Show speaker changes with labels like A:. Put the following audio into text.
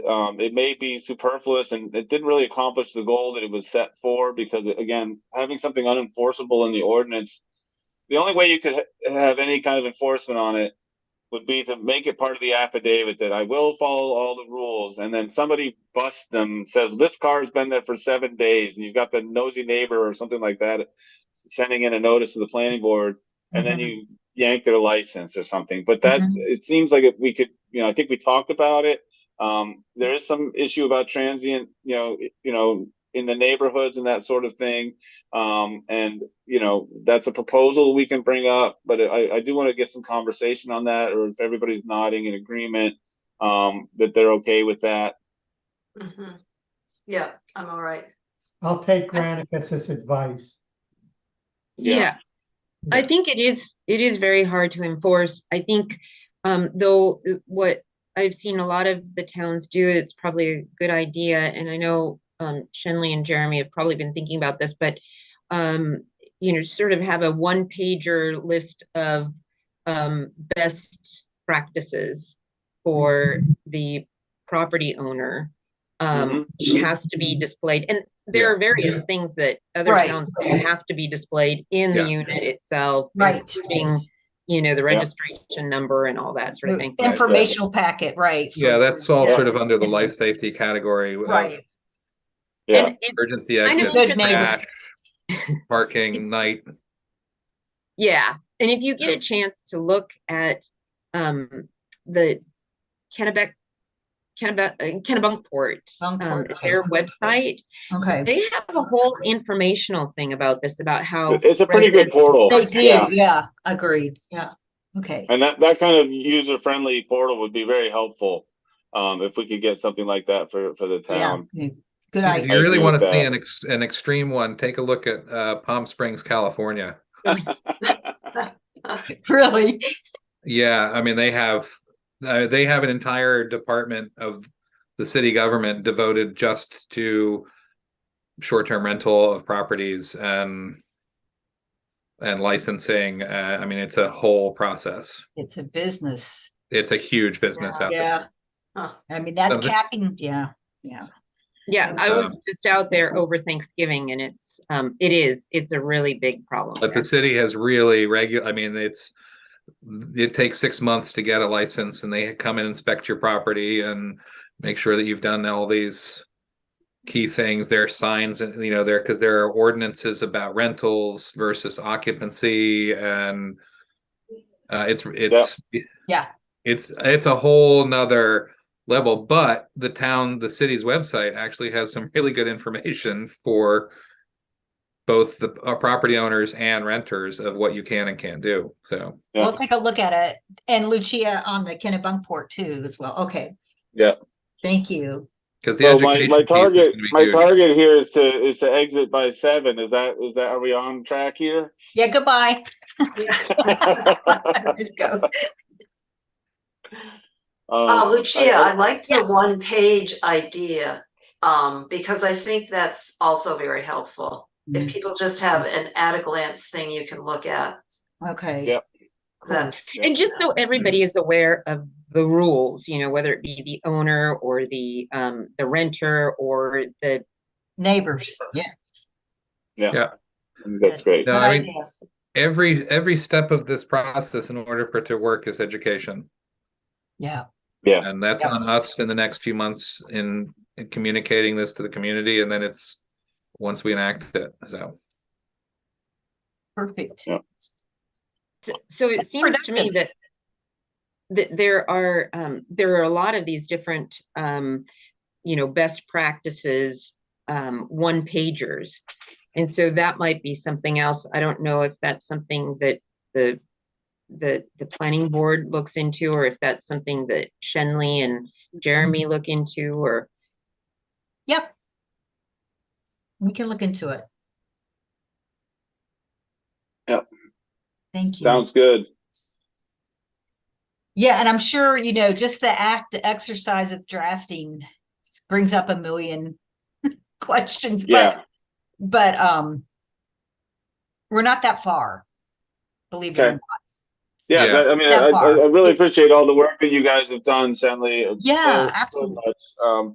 A: Um, it may be superfluous and it didn't really accomplish the goal that it was set for because again, having something unenforceable in the ordinance, the only way you could ha- have any kind of enforcement on it would be to make it part of the affidavit that I will follow all the rules and then somebody busts them, says this car's been there for seven days and you've got the nosy neighbor or something like that sending in a notice to the planning board and
B: Mm-hmm.
A: then you yank their license or something. But that,
C: Mhm.
A: it seems like if we could, you know, I think we talked about it. Um, there is some issue about transient, you know, i- you know, in the neighborhoods and that sort of thing. Um, and, you know, that's a proposal we can bring up, but I, I do want to get some conversation on that, or if everybody's nodding in agreement, um, that they're okay with that.
D: Mm-hmm.
B: Mhm. Yeah, I'm all right.
E: I'll take Granicus's advice.
A: Yeah.
F: Yeah, I
E: Yeah.
F: think it is, it is very hard to enforce. I think, um, though, uh, what I've seen a lot of the towns do, it's probably a good idea, and I know, um, Shenley and Jeremy have probably been thinking about this, but, um, you know, sort of have a one pager list of, um, best practices for the property owner. Um, which has to be displayed, and there are various things that other
B: Right.
F: towns do have to be displayed in the unit itself.
B: Right.
F: including, You know, the
A: Yeah.
F: registration number and all that sort of thing.
B: The Informational packet, right.
G: Mm-hmm. Yeah, that's all
B: Yeah.
G: sort of under the life safety category of
B: Right,
A: Yeah.
F: And it's-
G: emergency
F: Kind of
G: exit,
B: good
G: trash, parking, night.
F: Yeah, and if you get a chance to look at um the Kennebec, Kennebec, uh, Kennebunkport, um,
B: Bunkport, okay.
F: their website,
B: okay.
F: they have a whole informational thing about this, about how.
A: It's a pretty good
F: residents-
A: portal.
B: Oh, They do,
A: Yeah.
B: yeah, agreed, yeah, okay.
A: And that, that kind of user-friendly portal would be very helpful, um, if we could get something like that for, for the
B: Yeah,
A: town.
B: good good
G: If
B: idea.
G: you really
A: agree
G: want
A: with
G: to see
A: that.
G: an ex- an extreme one, take a look at uh, Palm Springs, California.
B: Really?
G: Yeah, I mean, they have, uh, they have an entire department of the city government devoted just to short-term rental of properties and and licensing. Uh, I mean, it's a whole process.
B: It's a business.
G: It's a huge business out there.
B: Yeah. I mean, that
G: Something-
B: capping, yeah, yeah.
F: Yeah, I
G: Um,
F: was just out there over Thanksgiving and it's, um, it is, it's a really big problem.
G: But
F: there.
G: the city has really regu, I mean, it's, it takes six months to get a license and they come and inspect your property and make sure that you've done all these key things, there are signs and, you know, there, because there are ordinances about rentals versus occupancy and uh, it's, it's.
B: Yeah.
G: It's, it's a whole nother level, but the town, the city's website actually has some really good information for both the uh, property owners and renters of what you can and can't do. So
A: Yeah.
B: We'll take a look at it. And Lucia on the Kennebunkport too as well. Okay.
A: Yeah.
B: Thank you.
G: because the
A: So my,
G: education
A: my
G: piece is
A: target,
G: gonna be
A: my
G: huge.
A: target here is to, is to exit by seven. Is that, is that, are we on track here? Um,
B: Yeah, goodbye. Oh,
D: Uh,
A: Um,
D: Lucia,
A: I-
D: I like the one page idea, um, because I think that's also very helpful.
B: Mm-hmm. Mm,
D: If people just have an at a glance thing you can look at,
B: Okay.
A: Yep.
B: Cool.
D: that's.
F: And just so everybody is aware of the rules, you know, whether it be the owner or the, um, the renter or the,
B: Neighbors, yeah.
A: I think That's great.
G: No,
B: good
G: I mean-
B: idea.
G: Every every step of this process, in order for it to work, is education,
B: Yeah,
G: and that's
B: Yep.
G: on us in the next few months in, in communicating this to the community, and then it's once we enact it. So
B: perfect.
A: Yeah.
F: so- so it seems to me
B: productive.
F: that that there are, um, there are a lot of these different, um, you know, best practices, um, one pagers. And so that might be something else. I don't know if that's something that the, the, the planning board looks into, or if that's something that Shenley and Jeremy look into, or
B: Yep. We can look into it.
A: Yep.
B: Thank you.
A: Sounds good.
B: Yeah, and I'm sure, you know, just the act, the exercise of drafting brings up a million questions, but,
A: Yeah.
B: but, um, we're not that far, believe it or
A: Okay.
B: not.
A: yeah,
G: Yeah.
A: That, I mean,
B: That
A: I, I,
B: far.
A: I really
B: It's-
A: appreciate all the work that you guys have done, Shanley.
B: Yeah,
A: so
B: absolutely.
A: much. Um,